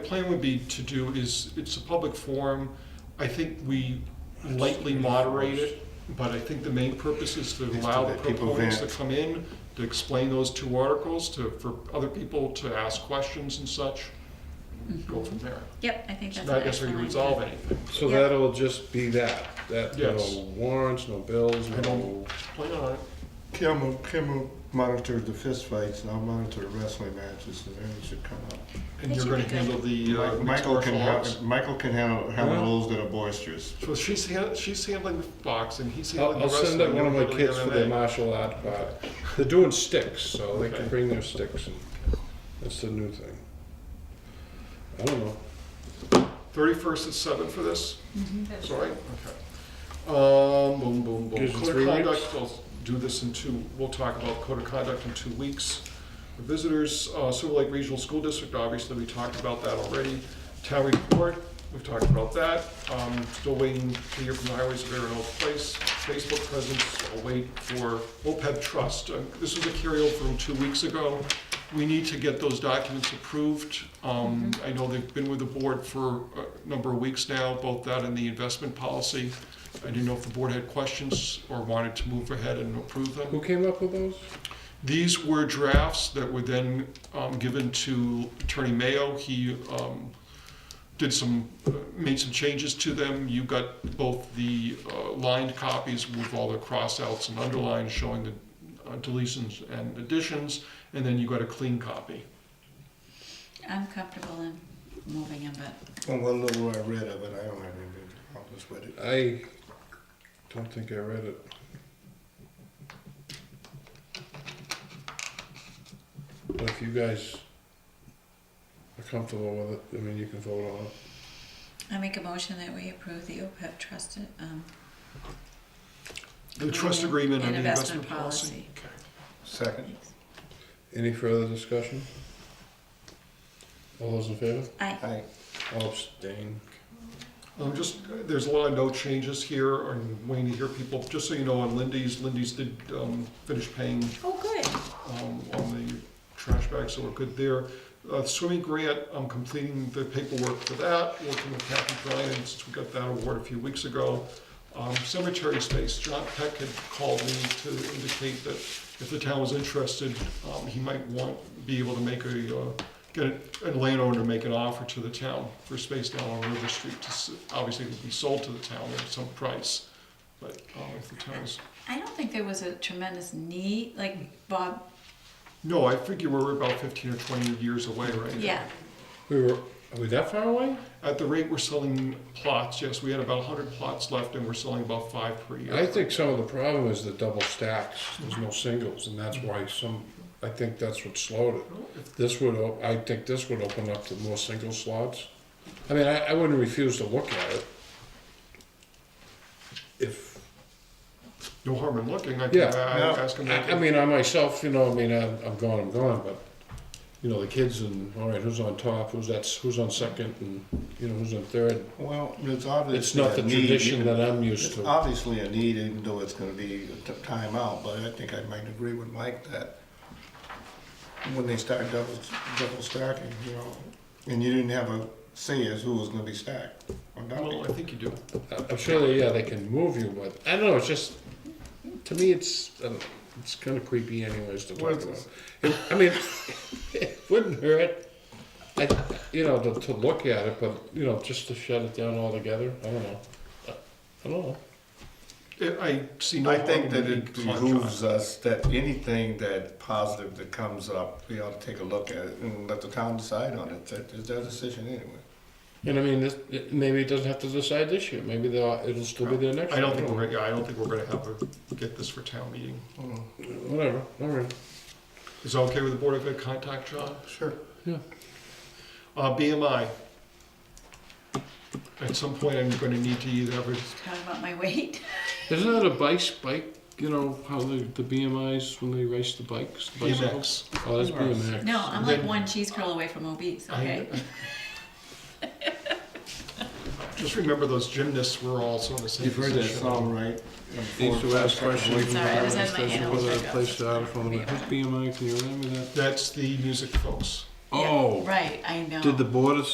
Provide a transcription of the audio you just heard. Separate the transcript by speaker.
Speaker 1: plan would be to do is, it's a public forum. I think we lightly moderate it, but I think the main purpose is to
Speaker 2: Is to
Speaker 1: allow the
Speaker 2: let people
Speaker 1: proponents to
Speaker 2: vent.
Speaker 1: come in, to explain those two articles, to, for other people to ask questions and such. Go from there.
Speaker 3: Yep, I think that's.
Speaker 1: Not
Speaker 3: an
Speaker 1: necessarily
Speaker 3: excellent
Speaker 1: resolve
Speaker 3: idea.
Speaker 1: anything.
Speaker 4: So
Speaker 3: Yeah.
Speaker 4: that'll just be that, that, no
Speaker 1: Yes.
Speaker 4: warrants, no bills,
Speaker 1: I
Speaker 4: no,
Speaker 1: don't plan on it.
Speaker 2: Kim will, Kim will monitor the fistfights and I'll monitor wrestling matches and then it should come up.
Speaker 1: And
Speaker 3: That
Speaker 1: you're
Speaker 3: should
Speaker 1: gonna
Speaker 3: be good.
Speaker 1: handle the uh,
Speaker 2: Mi- Michael can,
Speaker 1: martial arts.
Speaker 2: ha- Michael can handle,
Speaker 4: Well-
Speaker 2: handle those that are boisterous.
Speaker 1: So she's hand, she's handling the box and he's
Speaker 4: I'll,
Speaker 1: handling
Speaker 4: I'll
Speaker 1: the wrestling.
Speaker 4: send out one of my
Speaker 1: You're
Speaker 4: kids for the
Speaker 1: handling
Speaker 4: martial art part. They're doing sticks, so they
Speaker 1: Okay.
Speaker 4: can bring their sticks and that's the new thing. I don't know.
Speaker 1: Thirty-first at seven for this?
Speaker 3: Mm-hmm.
Speaker 1: Sorry, okay. Um, boom, boom, boom.
Speaker 4: Gives you
Speaker 1: Code of
Speaker 4: three
Speaker 1: conduct,
Speaker 4: weeks.
Speaker 1: I'll do this in two, we'll talk about code of conduct in two weeks. The Visitors, uh, Silver Lake Regional School District, obviously, we talked about that already. Town report, we've talked about that. Um, still waiting to hear from the highways of Arundel Place. Facebook presence, I'll wait for OPEB trust. Uh, This was a carryover from two weeks ago. We need to get those documents approved. Um, I know they've been with the board for a number of weeks now, both that and the investment policy. I didn't know if the board had questions or wanted to move ahead and approve them.
Speaker 4: Who came up with those?
Speaker 1: These were drafts that were then um, given to Attorney Mayo. He um, did some, uh, made some changes to them. You got both the uh, lined copies with all the cross-outs and underlines showing the uh, deletions and additions, and then you got a clean copy.
Speaker 3: I'm comfortable in moving him, but
Speaker 2: Well, one little I read of it, I don't have any, I'll just read it.
Speaker 4: I don't think I read it. But if you guys are comfortable with it, I mean, you can vote on it.
Speaker 3: I make a motion that we approve the OPEB trust, um,
Speaker 1: The trust agreement and the
Speaker 3: And
Speaker 1: investment
Speaker 3: investment
Speaker 1: policy.
Speaker 3: policy.
Speaker 1: Okay.
Speaker 2: Second,
Speaker 4: Any further discussion? All those in favor?
Speaker 3: I,
Speaker 2: I,
Speaker 4: All abstain.
Speaker 1: Um, Just, there's a lot of note changes here, and waiting to hear people, just so you know, on Lindy's, Lindy's did um, finish paying
Speaker 3: oh, good.
Speaker 1: um, on the trash bags, so we're good there. Uh, Swimming grant, I'm completing the paperwork for that, working with Kathy Bryan, since we got that award a few weeks ago. Um, Cemetery space, John Peck had called me to indicate that if the town was interested, um, he might want, be able to make a, uh, get a landowner to make an offer to the town for space down on River Street. to s- Obviously, it would be sold to the town at some price, but um, if the town's
Speaker 3: I don't think there was a tremendous need, like Bob,
Speaker 1: No, I figure we're about fifteen or twenty years away right now.
Speaker 3: yeah,
Speaker 4: We were, are we that far away?
Speaker 1: At the rate we're selling plots, yes, we had about hundred plots left and we're selling about five per year.
Speaker 4: I think some of the problem is the double stacks, there's no singles, and that's why some, I think that's what slowed it. This would, op- I think this would open up to more single slots. I mean, I, I wouldn't refuse to look at it. If,
Speaker 1: No harm in looking, I
Speaker 4: Yeah,
Speaker 1: think, I
Speaker 2: no,
Speaker 1: I ask them.
Speaker 4: I, I mean, I myself, you know, I mean, I'm, I'm gone, I'm gone, but, you know, the kids and, all right, who's on top, who's that's, who's on second, and, you know, who's on third.
Speaker 2: well, it's obviously.
Speaker 4: It's not the
Speaker 2: a need,
Speaker 4: tradition
Speaker 2: even-
Speaker 4: that I'm used
Speaker 2: It's
Speaker 4: to.
Speaker 2: obviously a need, even though it's gonna be a t- timeout, but I think I might agree with Mike that when they start double, double stacking, you know, and you didn't have a say as who was gonna be stacked or
Speaker 1: Well, I
Speaker 2: not.
Speaker 1: think you do.
Speaker 4: I- I'm sure they, yeah, they can move you, but I don't know. It's just to me, it's I don't know, it's kind of creepy, anyways. To
Speaker 2: Well,
Speaker 4: talk
Speaker 2: it's-
Speaker 4: about. It- I mean, it wouldn't hurt. I, you know, to, to look at it, but you know, just to shut it down altogether. I don't know. I, I don't know.
Speaker 1: I- I see no
Speaker 2: I
Speaker 1: harm in
Speaker 2: think that
Speaker 1: being
Speaker 2: it behooves us that anything that positive that comes up, we ought to take a look at it and let the town decide on it. That is their decision anyway.
Speaker 4: And I mean, this, it- maybe it doesn't have to decide this year. Maybe they'll, it'll still be there next.
Speaker 1: I don't
Speaker 4: year.
Speaker 1: think we're, gonna- yeah, I don't think we're gonna have to get this for town meeting.
Speaker 4: Whatever. All right.
Speaker 1: Is that okay with the board if I contact John?
Speaker 2: Sure.
Speaker 4: Yeah.
Speaker 1: Uh, BMI. At some point, I'm gonna need to either have a
Speaker 3: talk about my weight.
Speaker 4: Isn't that a bike bike? You know how the, the BMI's when they race the bikes, the bicycles?
Speaker 1: BMX.
Speaker 4: Oh, that's BMX.
Speaker 3: No, I'm like one cheese curl away from obese, okay?
Speaker 1: Just remember those gymnasts were also in the same
Speaker 2: You've heard
Speaker 1: position.
Speaker 2: that song, right?
Speaker 4: These two ask questions.
Speaker 3: Sorry, I was having my
Speaker 4: Station
Speaker 3: animals
Speaker 4: whether
Speaker 3: back up.
Speaker 4: placed out from the- whose BMI, can you remember that?
Speaker 1: That's the music folks.
Speaker 3: Yeah,
Speaker 4: Oh,
Speaker 3: Right, I know.
Speaker 4: did the board